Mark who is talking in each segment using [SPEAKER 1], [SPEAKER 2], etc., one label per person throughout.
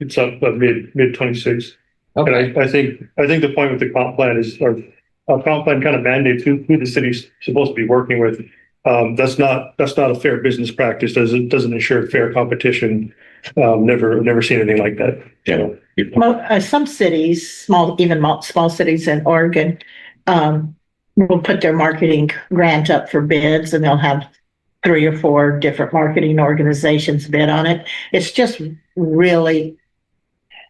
[SPEAKER 1] It's up uh, mid, mid twenty-six. And
[SPEAKER 2] Okay,
[SPEAKER 1] I, I think, I think the point with the comp plan is, or a comp plan kind of mandates who, who the city's supposed to be working with. Um, that's not, that's not a fair business practice. Doesn't, doesn't ensure fair competition. Um, never, never seen anything like that.
[SPEAKER 3] Yeah.
[SPEAKER 4] Mo uh, some cities, small, even mo- small cities in Oregon, um, will put their marketing grant up for bids and they'll have three or four different marketing organizations bid on it. It's just really,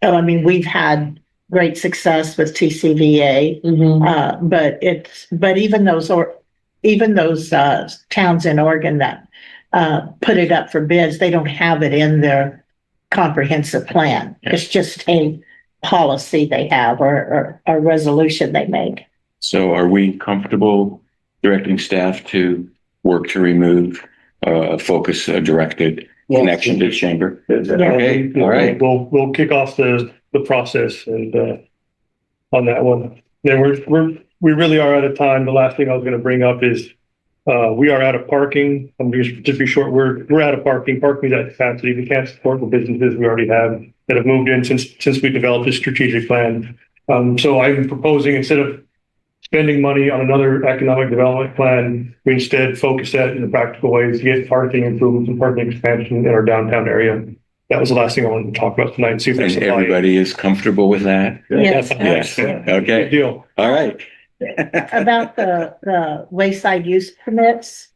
[SPEAKER 4] oh, I mean, we've had great success with TCVA,
[SPEAKER 2] mhm.
[SPEAKER 4] uh, but it's, but even those or, even those, uh, towns in Oregon that, uh, put it up for bids, they don't have it in their comprehensive plan. It's just a policy they have or, or a resolution they make.
[SPEAKER 3] So are we comfortable directing staff to work to remove uh, a focus uh, directed connection to the chamber? Okay, all right.
[SPEAKER 1] Um, We'll, we'll kick off the, the process and, uh, on that one. Then we're, we're, we really are out of time. The last thing I was gonna bring up is, uh, we are out of parking. I'm just, just be short, we're, we're out of parking. Parking is at capacity. We can't support the businesses we already have that have moved in since, since we developed this strategic plan. Um, so I'm proposing instead of spending money on another economic development plan, we instead focus that in a practical ways to get parking improvements and parking expansion in our downtown area. That was the last thing I wanted to talk about tonight and see if there's.
[SPEAKER 3] And
[SPEAKER 1] somebody-
[SPEAKER 3] everybody is comfortable with that?
[SPEAKER 4] Yes.
[SPEAKER 3] Yes,
[SPEAKER 1] Good
[SPEAKER 3] okay,
[SPEAKER 1] deal.
[SPEAKER 3] all right.
[SPEAKER 4] About the, the wayside use permits,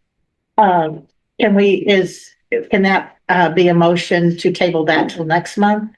[SPEAKER 4] um, can we, is, can that, uh, be a motion to table that till next month?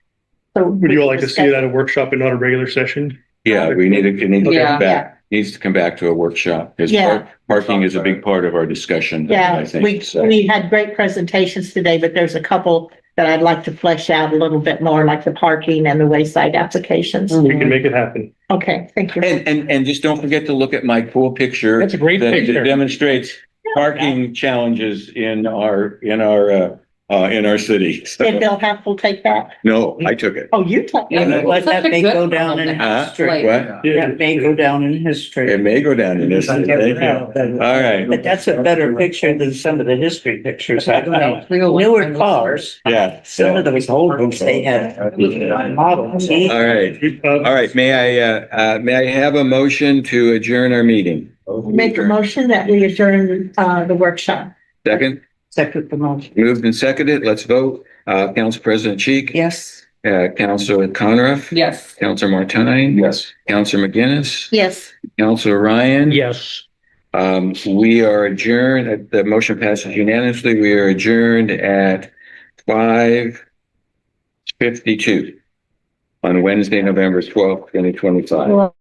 [SPEAKER 1] Would you all like to see it at a workshop and not a regular session?
[SPEAKER 3] Yeah, we need to, it needs to
[SPEAKER 2] Yeah.
[SPEAKER 3] come back, needs to come back to a workshop. Because
[SPEAKER 4] Yeah.
[SPEAKER 3] parking is a big part of our discussion, I
[SPEAKER 4] Yeah, we,
[SPEAKER 3] think. so.
[SPEAKER 4] we had great presentations today, but there's a couple that I'd like to flesh out a little bit more, like the parking and the wayside applications.
[SPEAKER 2] Mhm.
[SPEAKER 1] We can make it happen.
[SPEAKER 4] Okay, thank you.
[SPEAKER 3] And, and, and just don't forget to look at my cool picture.
[SPEAKER 2] That's a great
[SPEAKER 3] that
[SPEAKER 2] picture.
[SPEAKER 3] demonstrates parking challenges in our, in our, uh, uh, in our city.
[SPEAKER 4] Did Bill Happel take that?
[SPEAKER 3] No, I took it.
[SPEAKER 4] Oh, you took
[SPEAKER 5] Yeah,
[SPEAKER 4] that.
[SPEAKER 3] no.
[SPEAKER 5] but let that may go down in
[SPEAKER 3] Huh?
[SPEAKER 5] history.
[SPEAKER 3] What?
[SPEAKER 5] That may go down in
[SPEAKER 3] It
[SPEAKER 5] history.
[SPEAKER 3] may go down in this. Thank you.
[SPEAKER 5] But
[SPEAKER 3] All right,
[SPEAKER 5] that's a better picture than some of the history pictures. I don't know. Newer cars,
[SPEAKER 3] yeah.
[SPEAKER 5] some of those old ones, they had models.
[SPEAKER 3] All right,
[SPEAKER 1] Uh,
[SPEAKER 3] all right, may I, uh, uh, may I have a motion to adjourn our meeting?
[SPEAKER 4] Make a motion that we adjourn, uh, the workshop.
[SPEAKER 3] Second,
[SPEAKER 5] Second the motion.
[SPEAKER 3] moved and seconded, let's vote. Uh, Council President Cheek?
[SPEAKER 5] Yes.
[SPEAKER 3] Uh, Council Conriff?
[SPEAKER 2] Yes.
[SPEAKER 3] Council Martine? Yes. Council McGinnis?
[SPEAKER 4] Yes.
[SPEAKER 3] Council Ryan?
[SPEAKER 2] Yes.
[SPEAKER 3] Um, we are adjourned, uh, the motion passes unanimously. We are adjourned at five fifty-two on Wednesday, November twelfth, twenty twenty-five.